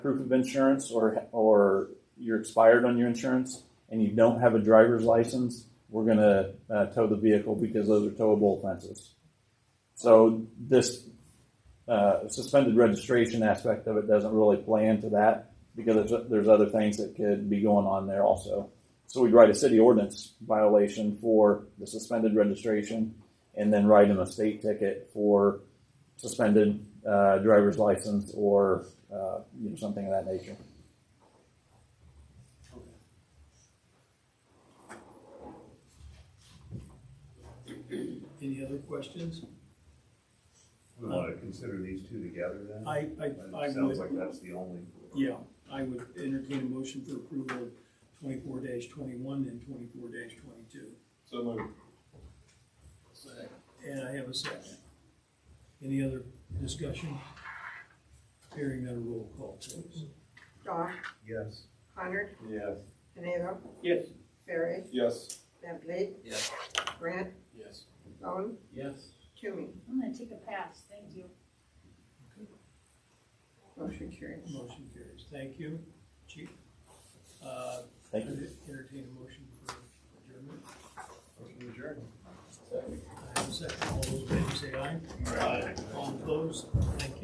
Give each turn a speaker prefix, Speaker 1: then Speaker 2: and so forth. Speaker 1: proof of insurance or or you're expired on your insurance and you don't have a driver's license, we're going to uh, tow the vehicle because those are towable offenses. So this uh, suspended registration aspect of it doesn't really play into that because there's, there's other things that could be going on there also. So we'd write a city ordinance violation for the suspended registration and then write them a state ticket for suspended uh, driver's license or uh, you know, something of that nature.
Speaker 2: Any other questions?
Speaker 3: We want to consider these two together then?
Speaker 2: I, I, I
Speaker 3: It sounds
Speaker 2: would,
Speaker 3: like that's the only.
Speaker 2: yeah, I would entertain a motion for approval of twenty-four twenty-one and twenty-four twenty-two.
Speaker 4: So moved.
Speaker 2: And I have a second. Any other discussion? Hearing none, roll call, please.
Speaker 5: Dawn,
Speaker 3: Yes.
Speaker 5: Conard,
Speaker 4: Yes.
Speaker 5: Pinero,
Speaker 2: Yes.
Speaker 5: Ferry,
Speaker 4: Yes.
Speaker 5: Bentley.
Speaker 4: Yes.
Speaker 5: Grant,
Speaker 4: Yes.
Speaker 5: Bone,
Speaker 4: Yes.
Speaker 5: Toomey.
Speaker 6: I'm gonna take a pass, thank you.
Speaker 5: Motion carries.
Speaker 2: Motion carries. Thank you, chief. Uh,
Speaker 1: Thank you.
Speaker 2: entertain a motion for adjournment. I have a second. All those in favor say aye. Aye. All opposed,